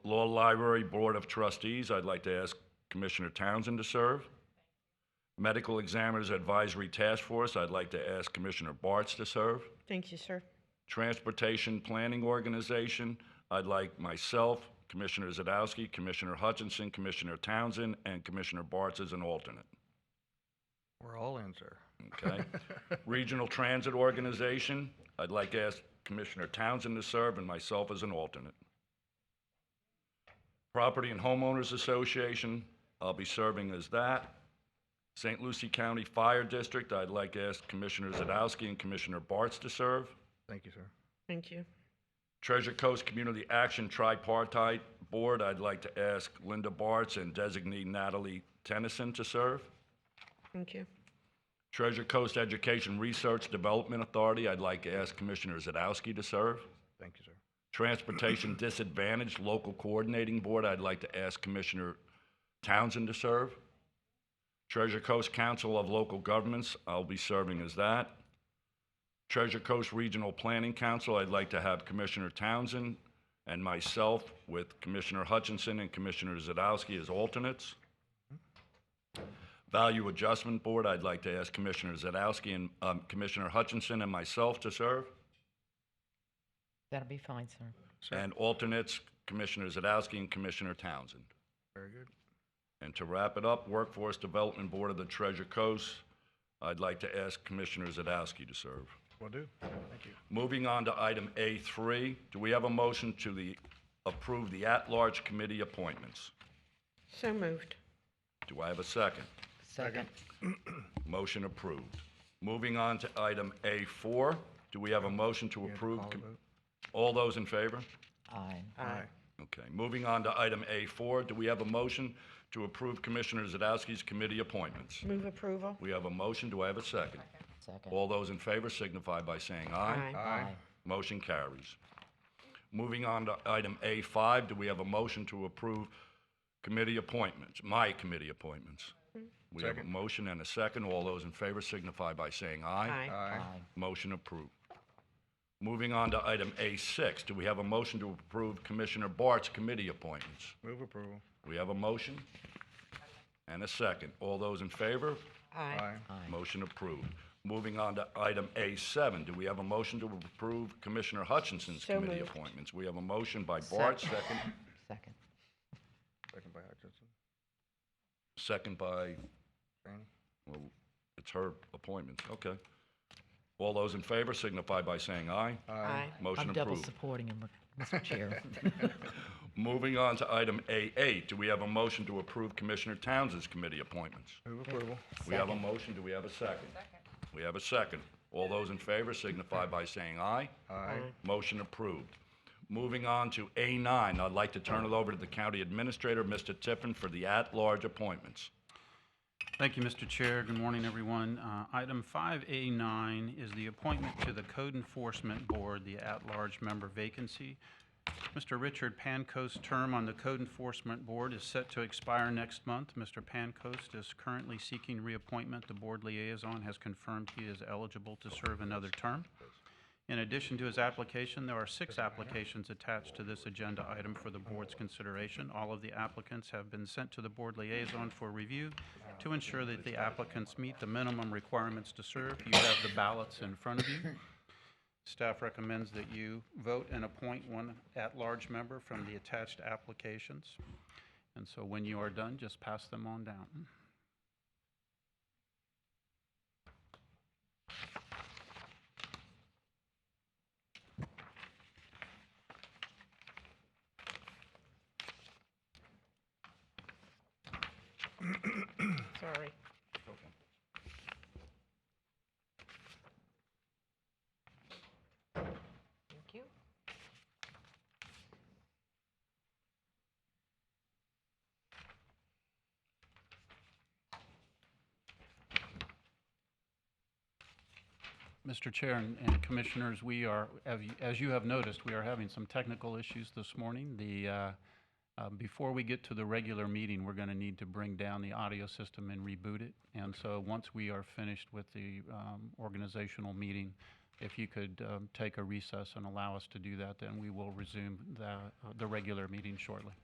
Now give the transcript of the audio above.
Hall Library Board of Trustees, I'd like to ask Commissioner Townsend to serve. Medical Examiners Advisory Task Force, I'd like to ask Commissioner Bartz to serve. Thank you, sir. Transportation Planning Organization, I'd like myself, Commissioner Zadowski, Commissioner Hutchinson, Commissioner Townsend, and Commissioner Bartz as an alternate. We're all in, sir. Okay. Regional Transit Organization, I'd like to ask Commissioner Townsend to serve and myself as an alternate. Property and Homeowners Association, I'll be serving as that. St. Lucie County Fire District, I'd like to ask Commissioner Zadowski and Commissioner Bartz to serve. Thank you, sir. Thank you. Treasure Coast Community Action Tripartite Board, I'd like to ask Linda Bartz and designee Natalie Tennyson to serve. Thank you. Treasure Coast Education Research Development Authority, I'd like to ask Commissioner Zadowski to serve. Thank you, sir. Transportation Disadvantaged Local Coordinating Board, I'd like to ask Commissioner Townsend to serve. Treasure Coast Council of Local Governments, I'll be serving as that. Treasure Coast Regional Planning Council, I'd like to have Commissioner Townsend and myself with Commissioner Hutchinson and Commissioner Zadowski as alternates. Value Adjustment Board, I'd like to ask Commissioner Zadowski and um, Commissioner Hutchinson and myself to serve. That'll be fine, sir. Sir. And alternates, Commissioner Zadowski and Commissioner Townsend. Very good. And to wrap it up, Workforce Development Board of the Treasure Coast, I'd like to ask Commissioner Zadowski to serve. Will do. Thank you. Moving on to item A3, do we have a motion to the, approve the at-large committee appointments? So moved. Do I have a second? Second. Motion approved. Moving on to item A4, do we have a motion to You have to approve? call the com- vote. All those in favor? Aye. Aye. Okay, moving on to item A4, do we have a motion to approve Commissioner Zadowski's committee appointments? Move approval. We have a motion, do I have a second? Second. All those in favor signify by saying aye. Aye. Motion carries. Moving on to item A5, do we have a motion to approve committee appointments, my committee appointments? We have a Second. motion and a second, all those in favor signify by saying aye. Aye. Aye. Aye. Motion approved. Moving on to item A6, do we have a motion to approve Commissioner Bart's committee appointments? Move approval. We have a motion and a second. All those in favor? Aye. Aye. Motion approved. Moving on to item A7, do we have a motion to approve Commissioner Hutchinson's So committee moved. appointments? We have a motion by Second. Bart, second, Second. Second by Hutchinson. second by, Franny. well, it's her appointments, okay. All those in favor signify by saying aye. Aye. Motion I'm double approved. supporting him, Mr. Chair. Moving on to item A8, do we have a motion to approve Commissioner Townsend's committee appointments? Move approval. We have a motion, do we have a second? We have a second. All those in favor signify by saying aye. Aye. Motion approved. Moving on to A9, I'd like to turn it over to the county administrator, Mr. Tiffin, for the at-large appointments. Thank you, Mr. Chair. Good morning, everyone. Uh, Item 5A9 is the appointment to the Code Enforcement Board, the at-large member vacancy. Mr. Richard Pancoast's term on the Code Enforcement Board is set to expire next month. Mr. Pancoast is currently seeking reappointment. The board liaison has confirmed he is eligible to serve another term. In addition to his application, there are six applications attached to this agenda item for the board's consideration. All of the applicants have been sent to the board liaison for review to ensure that the applicants meet the minimum requirements to serve. You have the ballots in front of you. Staff recommends that you vote and appoint one at-large member from the attached applications. And so when you are done, just pass them on down. Sorry. Thank you. Mr. Chair and- and Commissioners, we are, av- as you have noticed, we are having some technical issues this morning. The, uh, uh, before we get to the regular meeting, we're going to need to bring down the audio system and reboot it. And so once we are finished with the um, organizational meeting, if you could um, take a recess and allow us to do that, then we will resume the, the uh, regular meeting shortly.